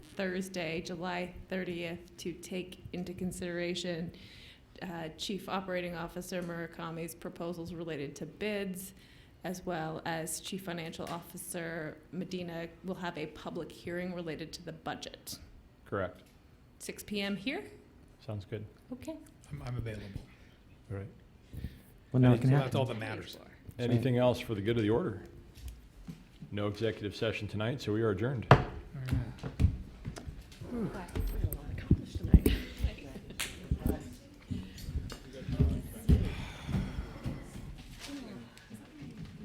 Thursday, July 30th, to take into consideration uh, Chief Operating Officer Murakami's proposals related to bids, as well as Chief Financial Officer Medina will have a public hearing related to the budget. Correct. 6 PM here? Sounds good. Okay. I'm, I'm available. All right. Well, no, I it think can So that's happen. all that matters. Anything else for the good of the order? No executive session tonight, so we are adjourned. All right. Black